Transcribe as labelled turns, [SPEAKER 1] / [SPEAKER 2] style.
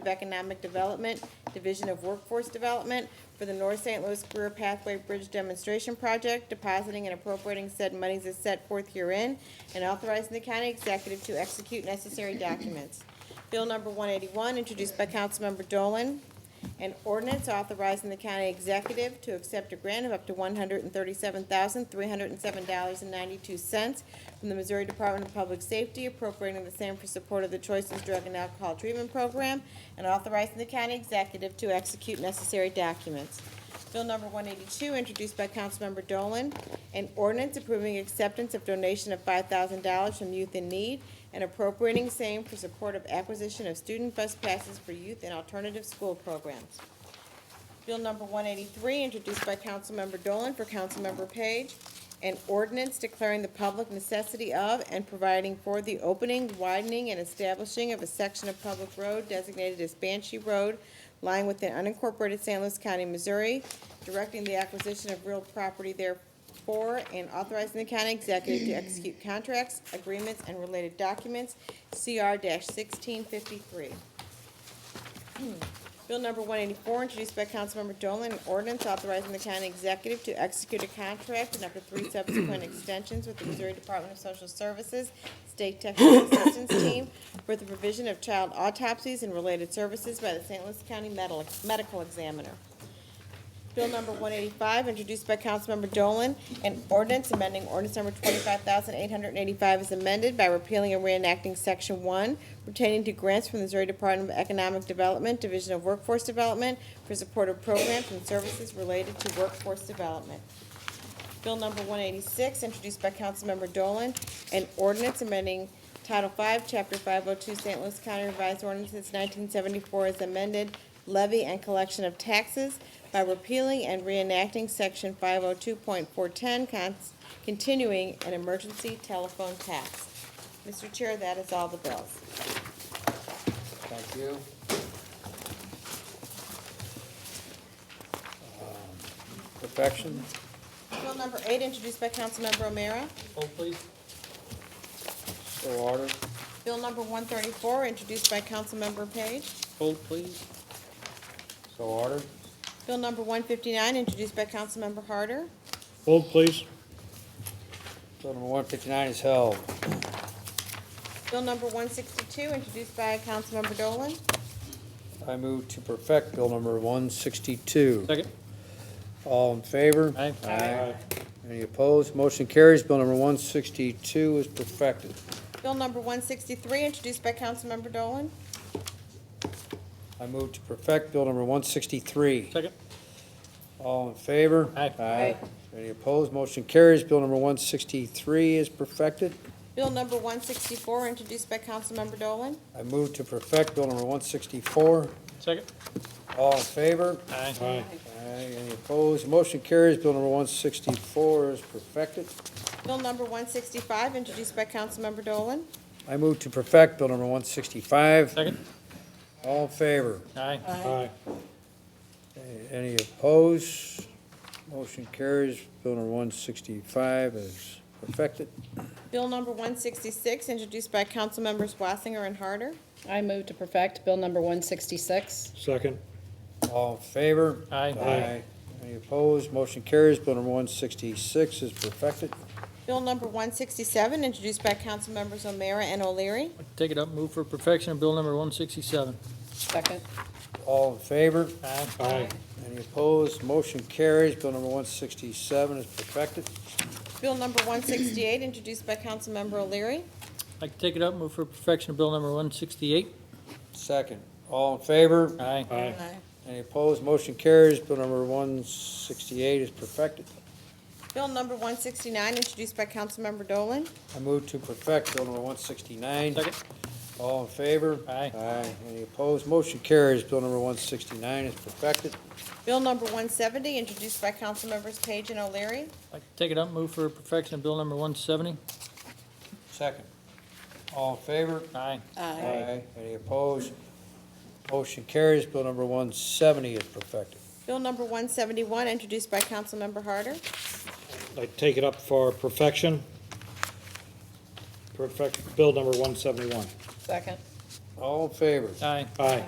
[SPEAKER 1] of Economic Development, Division of Workforce Development for the North St. Louis Career Pathway Bridge Demonstration Project, depositing and appropriating said monies as set forth herein, and authorizing the county executive to execute necessary documents. Bill number one eighty-one, introduced by Councilmember Dolan. An ordinance authorizing the county executive to accept a grant of up to one hundred and thirty-seven thousand, three hundred and seven dollars and ninety-two cents from the Missouri Department of Public Safety appropriating the same for support of the Choices Drug and Alcohol Treatment Program and authorizing the county executive to execute necessary documents. Bill number one eighty-two, introduced by Councilmember Dolan, an ordinance approving acceptance of donation of five thousand dollars from Youth in Need and appropriating same for support of acquisition of student bus passes for youth and alternative school programs. Bill number one eighty-three, introduced by Councilmember Dolan for Councilmember Page, an ordinance declaring the public necessity of and providing for the opening, widening, and establishing of a section of public road designated as Banshee Road lying within unincorporated San Luis County, Missouri, directing the acquisition of real property therefor, and authorizing the county executive to execute contracts, agreements, and related documents, CR sixteen fifty-three. Bill number one eighty-four, introduced by Councilmember Dolan, an ordinance authorizing the county executive to execute a contract and up to three subsequent extensions with the Missouri Department of Social Services State Technical Assistance Team for the provision of child autopsies and related services by the St. Louis County Medical, Medical Examiner. Bill number one eighty-five, introduced by Councilmember Dolan, an ordinance amending ordinance number twenty-five thousand eight hundred and eighty-five is amended by repealing and reenacting section one pertaining to grants from the Missouri Department of Economic Development, Division of Workforce Development for supportive programs and services related to workforce development. Bill number one eighty-six, introduced by Councilmember Dolan, an ordinance amending Title Five, Chapter five oh two, St. Louis County Revised Ordinances nineteen seventy-four as amended, levy and collection of taxes by repealing and reenacting section five oh two point four ten, continuing an emergency telephone tax. Mr. Chair, that is all the bills.
[SPEAKER 2] Thank you. Um, Perfection?
[SPEAKER 1] Bill number eight, introduced by Councilmember O'Meara.
[SPEAKER 2] Hold please. So ordered.
[SPEAKER 1] Bill number one thirty-four, introduced by Councilmember Page.
[SPEAKER 2] Hold please. So ordered.
[SPEAKER 1] Bill number one fifty-nine, introduced by Councilmember Harder.
[SPEAKER 3] Hold, please.
[SPEAKER 2] Bill number one fifty-nine is held.
[SPEAKER 1] Bill number one sixty-two, introduced by Councilmember Dolan.
[SPEAKER 2] I move to perfect bill number one sixty-two.
[SPEAKER 3] Second.
[SPEAKER 2] All in favor?
[SPEAKER 3] Aye.
[SPEAKER 2] Aye. Any opposed? Motion carries. Bill number one sixty-two is perfected.
[SPEAKER 1] Bill number one sixty-three, introduced by Councilmember Dolan.
[SPEAKER 2] I move to perfect bill number one sixty-three.
[SPEAKER 3] Second.
[SPEAKER 2] All in favor?
[SPEAKER 3] Aye.
[SPEAKER 2] Aye. Any opposed? Motion carries. Bill number one sixty-three is perfected.
[SPEAKER 1] Bill number one sixty-four, introduced by Councilmember Dolan.
[SPEAKER 2] I move to perfect Bill number one sixty-four.
[SPEAKER 3] Second.
[SPEAKER 2] All in favor?
[SPEAKER 3] Aye. Aye.
[SPEAKER 2] Aye. Any opposed? Motion carries. Bill number one sixty-four is perfected.
[SPEAKER 1] Bill number one sixty-five, introduced by Councilmember Dolan.
[SPEAKER 2] I move to perfect Bill number one sixty-five.
[SPEAKER 3] Second.
[SPEAKER 2] All in favor?
[SPEAKER 3] Aye. Aye.
[SPEAKER 2] A- Any opposed? Motion carries. Bill number one sixty-five is perfected.
[SPEAKER 1] Bill number one sixty-six, introduced by Councilmembers Wassinger and Harder.
[SPEAKER 4] I move to perfect Bill number 166.
[SPEAKER 3] Second.
[SPEAKER 2] All in favor?
[SPEAKER 3] Aye.
[SPEAKER 2] Any opposed? Motion carries. Bill number one sixty-six is perfected.
[SPEAKER 1] Bill number one sixty-seven, introduced by Councilmembers O'Meara and O'Leary.
[SPEAKER 3] Take it up, move for perfection of bill number one sixty-seven.
[SPEAKER 4] Second.
[SPEAKER 2] All in favor?
[SPEAKER 3] Aye. Aye.
[SPEAKER 2] Any opposed? Motion carries. Bill number one sixty-seven is perfected.
[SPEAKER 1] Bill number one sixty-eight, introduced by Councilmember O'Leary.
[SPEAKER 3] Like to take it up, move for perfection of bill number one sixty-eight.
[SPEAKER 2] Second. All in favor?
[SPEAKER 3] Aye. Aye.
[SPEAKER 2] Any opposed? Motion carries. Bill number one sixty-eight is perfected.
[SPEAKER 1] Bill number one sixty-nine, introduced by Councilmember Dolan.
[SPEAKER 2] I move to perfect Bill number one sixty-nine.
[SPEAKER 3] Second.
[SPEAKER 2] All in favor?
[SPEAKER 3] Aye.
[SPEAKER 2] Aye. Any opposed? Motion carries. Bill number one sixty-nine is perfected.
[SPEAKER 1] Bill number one seventy, introduced by Councilmembers Page and O'Leary.
[SPEAKER 3] Like to take it up, move for perfection of bill number one seventy.
[SPEAKER 2] Second. All in favor?
[SPEAKER 3] Aye.
[SPEAKER 2] Aye. Any opposed? Motion carries. Bill number one seventy is perfected.
[SPEAKER 1] Bill number one seventy-one, introduced by Councilmember Harder.
[SPEAKER 5] I take it up for perfection. Perfect, bill number one seventy-one.
[SPEAKER 4] Second.
[SPEAKER 2] All in favor?
[SPEAKER 3] Aye.
[SPEAKER 5] Aye.